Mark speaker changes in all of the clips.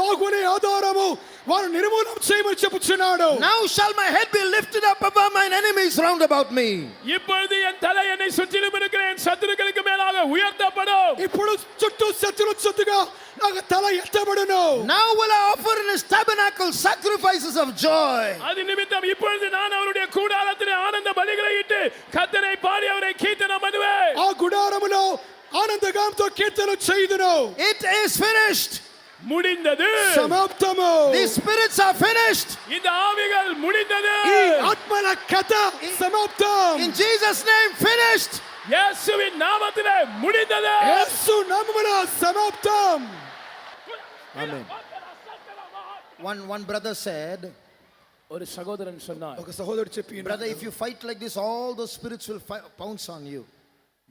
Speaker 1: కొనే ఆధారము వారు నిర్మూలన చేయమని చెప్పుచున్నాడు
Speaker 2: Now shall my head be lifted up above mine enemies round about me.
Speaker 3: இப்பொழுது என் தலை என்னை சுற்றிலும் இருக்கிற என் சத்துருக்களுக்கு மேலாக உயர்த்தப்படும்
Speaker 1: ఇప్పుడు చుట్టూ శత్రులు చుట్టుగా నాకు తల ఎత్తబడును
Speaker 2: Now will I offer in his tabernacle sacrifices of joy.
Speaker 3: அது நிமித்தம் இப்பொழுது நான் அவருடைய கூடாரத்திலே ஆனந்த பலிகளை இட்டு கத்தனை பாடி அவரை கீர்த்தனம் பண்ணுவேன்
Speaker 1: ఆ గుడారములో ఆనందగాంతో కీర్తన చేయుదును
Speaker 2: It is finished.
Speaker 3: முடிந்தது
Speaker 1: సమాప్తము
Speaker 2: These spirits are finished.
Speaker 3: இந்த ஆவிகள் முடிந்தது
Speaker 1: ఈ ఆత్మల కథ సమాప్తం
Speaker 2: In Jesus' name, finished.
Speaker 3: இயேசுவின் நாமத்திலே முடிந்தது
Speaker 1: యేసు నామమున సమాప్తం
Speaker 2: Amen. One, one brother said,
Speaker 3: ஒரு சகோதரன் சொன்னார்
Speaker 1: ఒక సహోదరుడు చెప్పి
Speaker 2: Brother, if you fight like this, all those spirits will fi- pounce on you.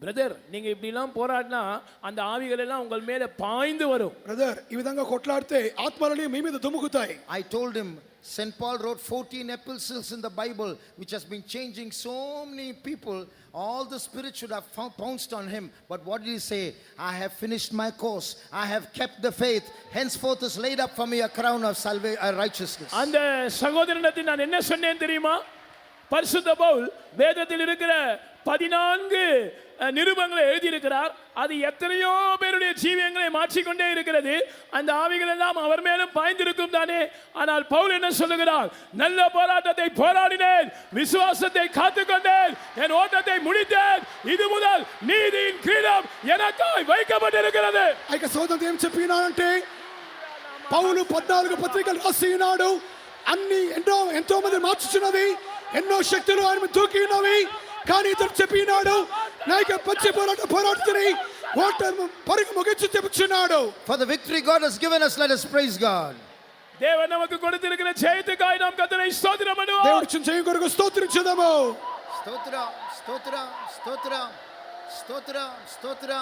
Speaker 3: Brother நீங்க இப்படி எல்லாம் போராடினா அந்த ஆவிகள் எல்லாம் உங்கள் மேல பாய்ந்து வரும்
Speaker 1: బ్రదర్ ఈ విధంగా కొట్లాడితే ఆత్మలని మీ మీద దుమ్ముకుతాయి
Speaker 2: I told him, St. Paul wrote 14 epistles in the Bible, which has been changing so many people. All the spirits should have fou- pounced on him. But what did he say? I have finished my course. I have kept the faith. Henceforth is laid up for me a crown of salva- uh, righteousness.
Speaker 3: அந்த சகோதரனத்தை நான் என்ன சொன்னேன் தெரியுமா பரிசுத்த பவுல் வேதத்தில் இருக்கிற பதினான்கு அஹ், நிருபங்களை எழுதியிருக்கிறார் அது எத்தனையோ பேருடைய ஜீவியங்களை மாற்றிக்கொண்டே இருக்கிறது அந்த ஆவிகள் எல்லாம் அவர் மேலும் பாய்ந்திருக்கும் தானே ஆனால் பவுல் என்ன சொல்லுகிறார் நல்ல போராட்டத்தை போராடினேன் விசுவாசத்தை காத்துக்கொண்டேன் என் ஓட்டத்தை முடித்தேன் இது முதல் நீதியின் கிரீடம் எனக்காய் வைக்கப்பட்டிருக்கிறது
Speaker 1: ఆ యొక్క సోదరుడు ఏం చెప్పినాడంటే పౌలు పద్నాలుగు పత్రికలు రాసి ఉన్నాడు అన్ని ఎంతో ఎంతో మంది మార్చుచున్నది ఎన్నో శక్తులు ఆయన దూకి ఉన్నవి కానీ ఇతడు చెప్పినాడు నా యొక్క పచ్చి పోరాటం పోరాడుతుంది ఓటర్ పరుగు ముగించి చెప్పుచున్నాడు
Speaker 2: For the victory God has given us, let us praise God.
Speaker 3: தேவன் நமக்கு கொடுத்திருக்கிற ஜெயத்துக்காய் நாம் கத்தனை ஸ்தோத்திரம் பண்ணுவோம்
Speaker 1: దేవుడి చుట్టూ చేయి కొరకు స్తోత్రించుదాము
Speaker 2: Stotra, Stotra, Stotra, Stotra, Stotra,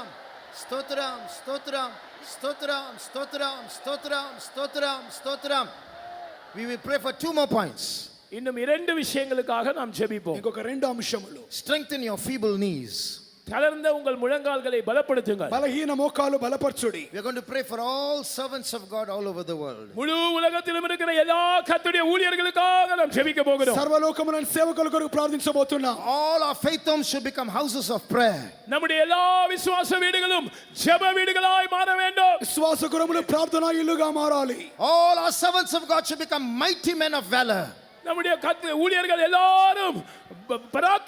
Speaker 2: Stotra, Stotra, Stotra, Stotra, Stotra, Stotra, Stotra. We will pray for two more points.
Speaker 3: இன்னும் இரண்டு விஷயங்களுக்காக நாம் ஜெபிப்போம்
Speaker 1: ఇంకొక రెండు అంశములు
Speaker 2: Strengthen your feeble knees.
Speaker 3: தளர்ந்த உங்கள் ముళంగాల్களை బలపడుతుంగ
Speaker 1: బలహీన మోకాలు బలపరచుడి
Speaker 2: We are going to pray for all servants of God all over the world.
Speaker 3: முழு உலகத்திலும் இருக்கிற எல்லா கத்துடைய ஊழியர்களுக்காக நாம் ஜெபிக்க போகிறோம்
Speaker 1: సర్వలోకమున సేవకుల కొరకు ప్రార్థించబోతున్నాం
Speaker 2: All our faith homes should become houses of prayer.
Speaker 3: நம்முடைய எல்லா விசுவாச வீடுகளும் ஜெப வீடுகளாய் மாற வேண்டும்
Speaker 1: శ్వాస గురములు ప్రార్థనా ఇల్లుగా మారాలి
Speaker 2: All our servants of God should become mighty men of valor.
Speaker 3: நம்முடைய கத்து ஊழியர்கள் எல்லாரும் ப-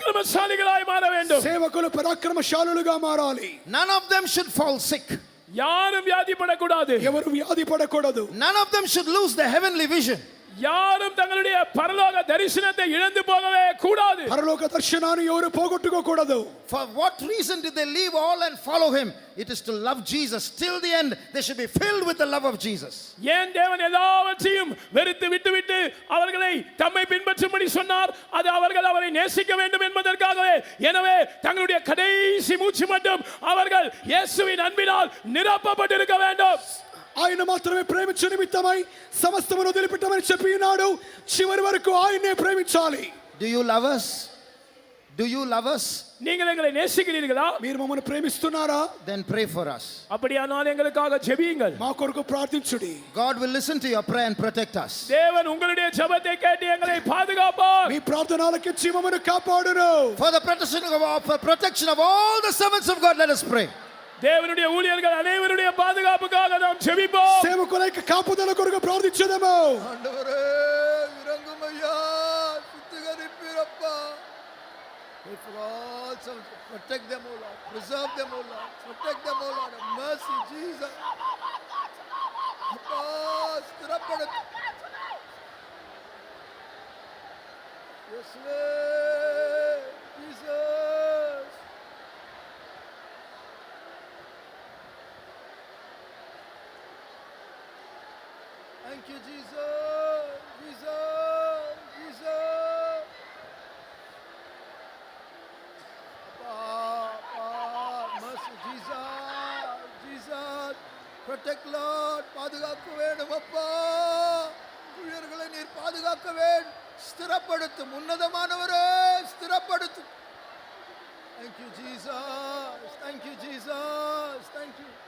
Speaker 3: பராக்கிரமசாலிகளாய் மாற வேண்டும்
Speaker 1: సేవకులు పరాక్రమశాలులుగా మారాలి
Speaker 2: None of them should fall sick.
Speaker 3: யாரும் வியாதிப்படக்கூடாது
Speaker 1: ఎవరు వ్యాధి పడకూడదు
Speaker 2: None of them should lose their heavenly vision.
Speaker 3: யாரும் தங்களுடைய பரலோக தரிசனத்தை இழந்து போகவே கூடாது
Speaker 1: పరలోక దర్శనాన్ని ఎవరు పోగొట్టుకోకూడదు
Speaker 2: For what reason did they leave all and follow him? It is to love Jesus. Till the end, they should be filled with the love of Jesus.
Speaker 3: ஏன் தேவன் எல்லாவற்றையும் வெறுத்து விட்டுவிட்டு அவர்களை தம்மை பின்பற்றும்படி சொன்னார் அது அவர்கள் அவரை நேசிக்க வேண்டும் என்பதற்காகவே எனவே தங்களுடைய கடைசி மூச்சு மட்டும் அவர்கள் இயேசுவின் அன்பினால் நிரப்பப்பட்டிருக்க வேண்டும்
Speaker 1: ఆయన మాత్రమే ప్రేమించు నిమిత్తమై సమస్తమును వదిలిపెట్టమని చెప్పి ఉన్నాడు చివరి వరకు ఆయన్నే ప్రేమించాలి
Speaker 2: Do you love us? Do you love us?
Speaker 3: நீங்கள் எங்களை நேசிக்கிறீர்களா
Speaker 1: మీరు మమ్మల్ని ప్రేమిస్తున్నారా
Speaker 2: Then pray for us.
Speaker 3: அப்படியானால் எங்களுக்காக ஜெபியுங்கள்
Speaker 1: మా కొరకు ప్రార్థించుడి
Speaker 2: God will listen to your prayer and protect us.
Speaker 3: தேவன் உங்களுடைய ஜெபத்தை கேட்டு எங்களை பாதுகாப்பார்
Speaker 1: మీ ప్రార్థనలకి జీవమును కాపాడును
Speaker 2: For the protection of all, for protection of all the servants of God, let us pray.
Speaker 3: தேவனுடைய ஊழியர்கள் அனைவருடைய பாதுகாப்புக்காக நாம் ஜெபிப்போம்
Speaker 1: సేవకుల యొక్క కాపుదల కొరకు ప్రార్థించదము
Speaker 2: Pray for all servants. Protect them, O Lord. Preserve them, O Lord. Protect them, O Lord. Have mercy, Jesus. Abba, sthirapadu. இயேசுவே, Jesus. Thank you, Jesus. Jesus, Jesus. Abba, Abba, mercy, Jesus, Jesus. Protect Lord, பாதுகாக்க வேண்டும் அப்பா ஊழியர்களை நீர் பாதுகாக்க வேண்டும் ஸ்திரப்படுத்தும் உன்னதமானவரே ஸ்திரப்படுத்தும் Thank you, Jesus. Thank you, Jesus. Thank you.